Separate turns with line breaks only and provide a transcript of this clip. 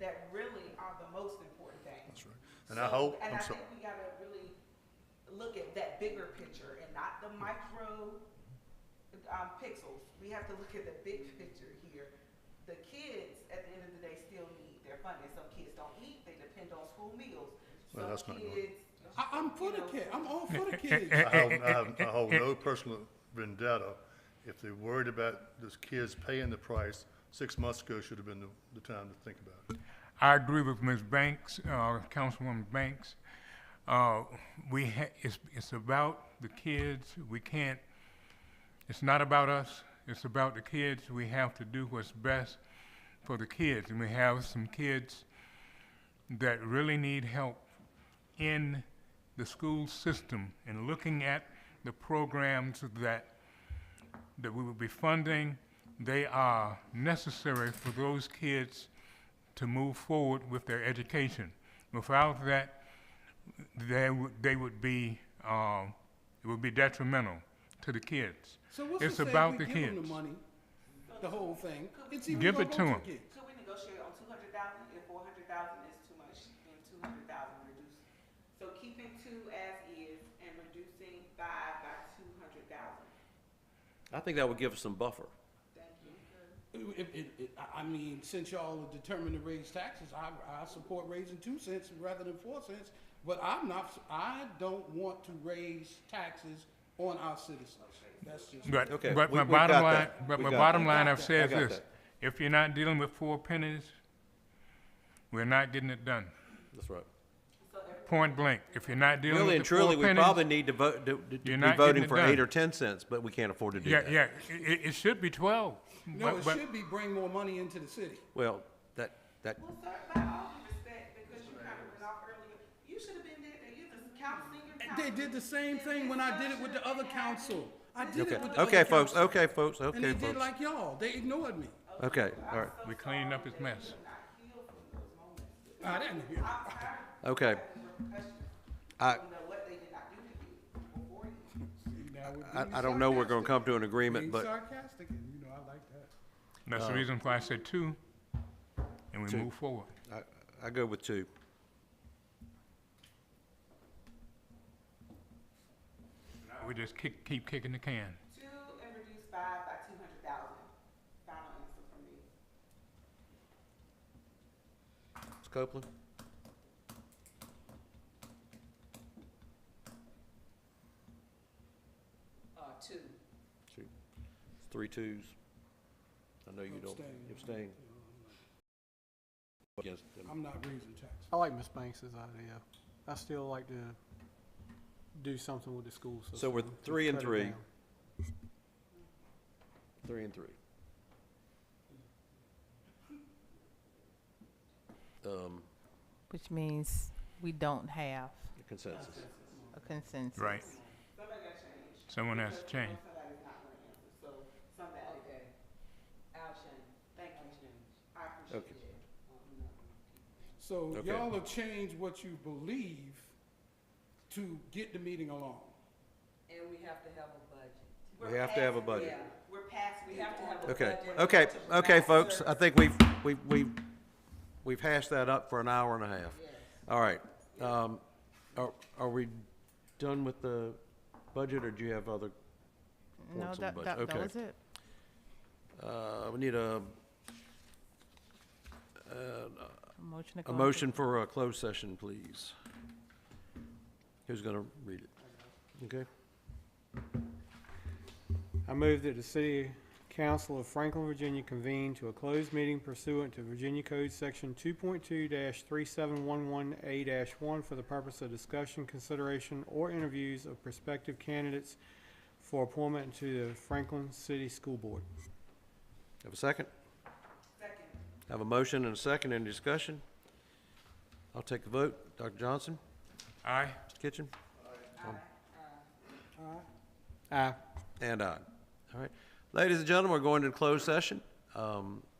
that really are the most important things.
That's right. And I
So-
hope,
And I
I'm sorry,
think we gotta really look at that bigger picture and not the micro, um, pixels. We have to look at the big picture here. The kids, at the end of the day, still need their funding. Some kids don't eat, they depend on school meals.
Well, that's
Some
not good.
kids.
I, I'm for the
you know,
kid, I'm all for the kids.
I have, I have, I hold no personal vendetta. If they're worried about those kids paying the price, six months ago should have been the, the time to think about it.
I agree with Ms. Banks, uh, Councilwoman Banks. Uh, we ha- it's, it's about the kids. We can't, it's not about us. It's about the kids. We have to do what's best for the kids. And we have some kids that really need help in the school system and looking at the programs that that we will be funding, they are necessary for those kids to move forward with their education. Without that, they would, they would be, um, it would be detrimental to the kids.
So what's
It's
to say
about
we
the
give 'em
kids.
the money, the whole thing? It's even
Give
gonna
it
go
to
the
'em.
kids.
Could we negotiate on two hundred thousand, if four hundred thousand is too much, then two hundred thousand reduce? So keeping two as is and reducing five by two hundred thousand,
I think that would give us some buffer.
thank you.
If, if, if, I- I mean, since y'all are determined to raise taxes, I, I support raising two cents rather than four cents. But I'm not, I don't want to raise taxes on our citizens. That's just.
But,
Okay,
but
we-
my
we got
bottom line,
that.
but
We
my
got
bottom
that.
line,
I
I've said
got
this,
that.
if you're not dealing with four pennies, we're not getting it done.
That's right.
Point blank, if you're not dealing
Really
with
and
the four pennies.
truly, we probably need to vote, to- to
You're
be
not getting
voting
it
for
done.
eight or 10 cents, but we can't afford to do
Yeah,
that.
yeah, it, it should be twelve.
No,
Mm, but-
it
but-
should be bring more money into the city.
Well, that, that,
Well, sir, by all due respect, because you kind of went off earlier, you should have been there, you're the council, senior
They
council.
did the same thing when I did it with the other council. I did
okay,
it with the
okay,
other
folks,
council.
okay, folks,
And
okay,
they did
folks.
like y'all. They ignored me.
Okay, all right,
We cleaned up his mess.
I didn't hear.
I'm tired of
okay.
repercussions.
I,
don't know what they did not do to you before you.
I, I don't know we're gonna come to an
Being
agreement, but
sarcastic, and you know, I like that.
That's the reason why I said two, and we
two.
move forward.
I, I go with two.
We just kick, keep kicking the can.
Two and reduce five by two hundred thousand. Final answer from me.
Ms. Copeland?
Uh, two.
Two. It's Three twos. I know you don't.
Abstain.
you Abstain. Against them.
I'm not raising taxes.
I like Miss Banks's idea. I still like to do something with the school system.
So we're
to
three and
cut it
three.
down.
Three and three. Um,
Which means we don't have
consensus.
a consensus.
Right. Someone has to change.
Somebody's not gonna answer, so somebody. Okay. I'll change. Thank you. I appreciate it. Um,
So
Okay.
y'all will change what you believe to get the meeting along.
And we have to have a budget.
We're
We have to have a
past-
budget.
yeah, We're past, we have to have a budget.
Okay, okay, okay, folks, I think we've, we've, we've, we've hashed that up for an hour and a half. All right, um, are, are we done with the budget, or do you have other
No,
points on the
that, that,
budget?
that
Okay.
was it.
Uh, we need a,
A Motion to go
a
into-
motion for a closed session, please. Who's gonna read it? Okay?
I move that the City Council of Franklin, Virginia convene to a closed meeting pursuant to Virginia Code Section two point two three seven one one A one for the purpose of discussion, consideration, or interviews of prospective candidates for appointment to the Franklin City School Board.
Have a second?
Second.
Have a motion and a second, any discussion? I'll take the vote. Dr. Johnson,
Aye.
Mr. Kitchen?
Aye.
And aye. All right. Ladies and gentlemen, we're going to closed session. Um,